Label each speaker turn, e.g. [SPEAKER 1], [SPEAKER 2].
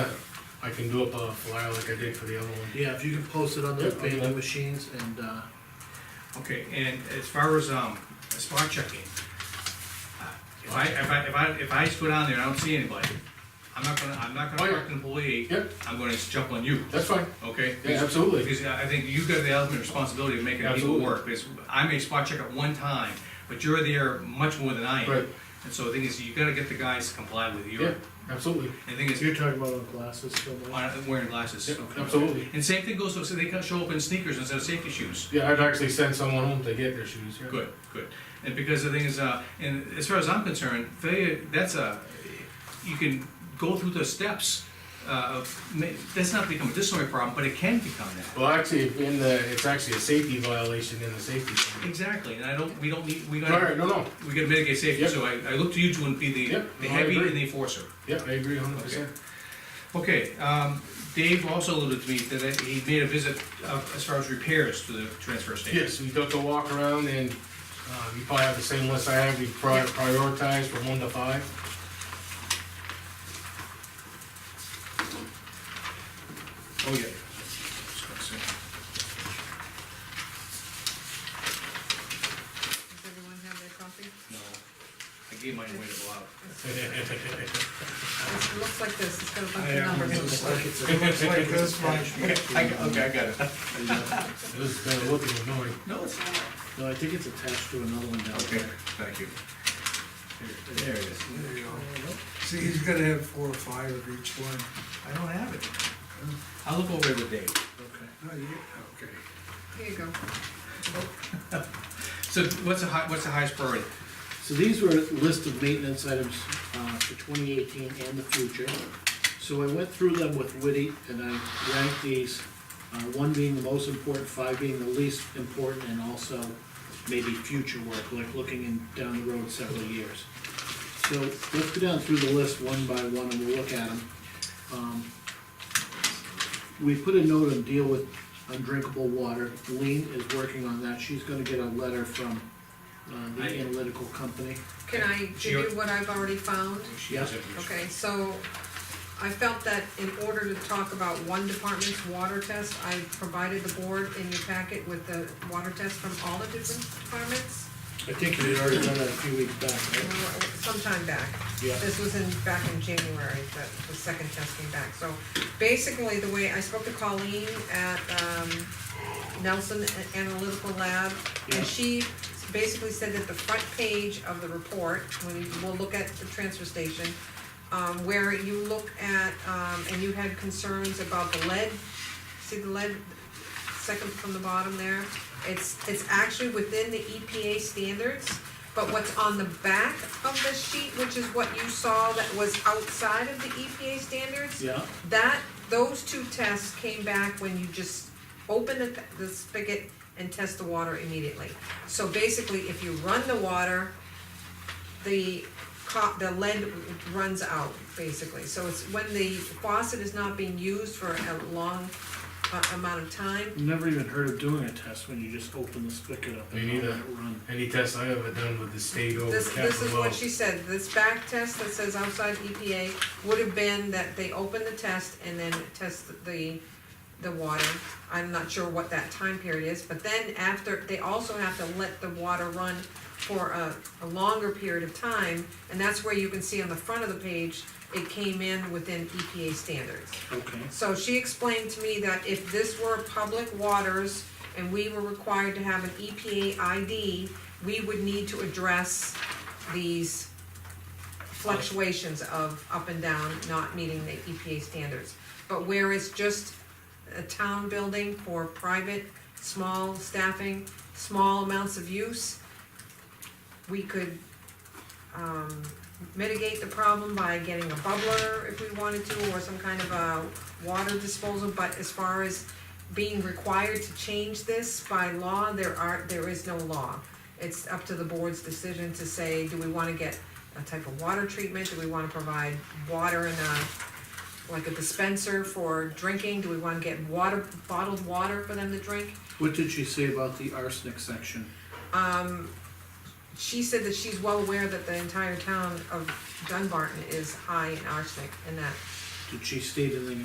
[SPEAKER 1] can do up a flyer like I did for the other one.
[SPEAKER 2] Yeah, if you could post it on those
[SPEAKER 1] Yeah, I'll do
[SPEAKER 2] vending
[SPEAKER 1] that.
[SPEAKER 2] machines and, uh,
[SPEAKER 3] Okay, and as far as, um, spot checking, uh, if I, if I, if I, if I just go down there and I don't see anybody, I'm not gonna, I'm not
[SPEAKER 1] Oh,
[SPEAKER 3] gonna
[SPEAKER 1] yeah.
[SPEAKER 3] correct an employee.
[SPEAKER 1] Yep.
[SPEAKER 3] I'm gonna jump on you,
[SPEAKER 1] That's fine,
[SPEAKER 3] okay?
[SPEAKER 1] yeah, absolutely.
[SPEAKER 3] Because I I think you got the ultimate responsibility of making people
[SPEAKER 1] Absolutely.
[SPEAKER 3] work, because I may spot check at one time, but you're there much more than I am.
[SPEAKER 1] Right.
[SPEAKER 3] And so the thing is, you gotta get the guys to comply with you,
[SPEAKER 1] Yeah,
[SPEAKER 3] and
[SPEAKER 1] absolutely.
[SPEAKER 3] the thing is,
[SPEAKER 2] you're talking about on glasses so much.
[SPEAKER 3] on- wearing glasses.
[SPEAKER 1] Yeah, absolutely.
[SPEAKER 3] And same thing goes, so they can show up in sneakers instead of safety shoes.
[SPEAKER 1] Yeah, I'd actually send someone home to get their shoes, yeah.
[SPEAKER 3] Good, good. And because the thing is, uh, and as far as I'm concerned, failure, that's a, you can go through the steps. Uh, of ma- that's not become a disciplinary problem, but it can become that.
[SPEAKER 1] Well, actually, in the, it's actually a safety violation in the safety. plan.
[SPEAKER 3] Exactly, and I don't, we don't need, we
[SPEAKER 1] All right,
[SPEAKER 3] gotta,
[SPEAKER 1] no, no,
[SPEAKER 3] we gotta mitigate safety,
[SPEAKER 1] Yep.
[SPEAKER 3] so I, I look to you to be the,
[SPEAKER 1] Yep,
[SPEAKER 3] the
[SPEAKER 1] no, I
[SPEAKER 3] heavy
[SPEAKER 1] agree.
[SPEAKER 3] and the enforcer.
[SPEAKER 1] yeah, I agree hundred percent.
[SPEAKER 3] Okay, um, Dave also alluded to me that he made a visit uh, as far as repairs to the transfer station.
[SPEAKER 1] Yes, we took a walk around and, uh, you probably have the same list I have, we pri- prioritized from one to five.
[SPEAKER 3] Oh, yeah.
[SPEAKER 4] Does everyone have their copy?
[SPEAKER 3] No, I gave mine away to Bob.
[SPEAKER 4] It looks like this, it's got a bunch
[SPEAKER 3] I
[SPEAKER 4] of
[SPEAKER 3] am
[SPEAKER 4] numbers.
[SPEAKER 5] Looks like this much.
[SPEAKER 3] I, got- okay, I got it.
[SPEAKER 1] It was kinda looking annoying.
[SPEAKER 3] No, it's not.
[SPEAKER 2] No, I think it's attached to another one down
[SPEAKER 3] Okay,
[SPEAKER 2] there.
[SPEAKER 3] thank you. There it is.
[SPEAKER 5] There you go. See, he's gonna have four or five of each one.
[SPEAKER 3] I don't have it. I'll look over it with Dave.
[SPEAKER 2] Okay.
[SPEAKER 5] No, you, okay.
[SPEAKER 4] Here you go.
[SPEAKER 3] So what's the high, what's the highest priority?
[SPEAKER 2] So these were a list of maintenance items uh, for 2018 and the future. So I went through them with Woody and I ranked these, uh, one being the most important, five being the least important, and also maybe future work, like looking in, down the road several years. So let's go down through the list one by one and we'll look at them. Um, We put a note on deal with undrinkable water. Lean is working on that. She's gonna get a letter from uh, the
[SPEAKER 3] I-
[SPEAKER 2] analytical company.
[SPEAKER 4] Can I give you what I've already found?
[SPEAKER 2] Yeah.
[SPEAKER 4] Okay, so I felt that in order to talk about one department's water test, I provided the board in your packet with the water test from all the different departments
[SPEAKER 2] I think you had already done that a few weeks back,
[SPEAKER 4] you
[SPEAKER 2] right?
[SPEAKER 4] know, sometime back.
[SPEAKER 2] Yeah.
[SPEAKER 4] This was in, back in January, that the second test came back, so basically, the way, I spoke to Colleen at, um, Nelson Analytical Lab,
[SPEAKER 2] Yeah.
[SPEAKER 4] and she basically said that the front page of the report, when you, we'll look at the transfer station, um, where you look at, um, and you had concerns about the lead, see the lead second from the bottom there. It's, it's actually within the EPA standards, but what's on the back of the sheet, which is what you saw that was outside of the EPA standards,
[SPEAKER 2] Yeah,
[SPEAKER 4] that, those two tests came back when you just open the, the spigot and test the water immediately. So basically, if you run the water, the co- the lead runs out, basically. So it's when the faucet is not being used for a long uh, amount of time,
[SPEAKER 2] never even heard of doing a test when you just open the spigot up and
[SPEAKER 1] Me
[SPEAKER 2] let it
[SPEAKER 1] neither.
[SPEAKER 2] run.
[SPEAKER 1] Any test I ever done with the state over
[SPEAKER 4] This, this is
[SPEAKER 1] Capitol Hill.
[SPEAKER 4] what she said, this back test that says outside EPA would have been that they open the test and then test the, the water. I'm not sure what that time period is, but then after, they also have to let the water run for a, a longer period of time, and that's where you can see on the front of the page, it came in within EPA standards.
[SPEAKER 2] Okay,
[SPEAKER 4] So she explained to me that if this were public waters and we were required to have an E EPA ID, we would need to address these fluctuations of up and down, not meeting the EPA standards. But where it's just a town building for private, small staffing, small amounts of use, we could, um, mitigate the problem by getting a bubbler if we wanted to, or some kind of a water disposal, but as far as being required to change this by law, there are, there is no law. It's up to the board's decision to say, do we wanna get a type of water treatment, do we wanna provide water in a, like a dispenser for drinking, do we wanna get water, bottled water for them to drink?
[SPEAKER 2] what did she say about the arsenic section?
[SPEAKER 4] Um, she said that she's well aware that the entire town of Dunbarton is high in arsenic and that
[SPEAKER 2] Did she state anything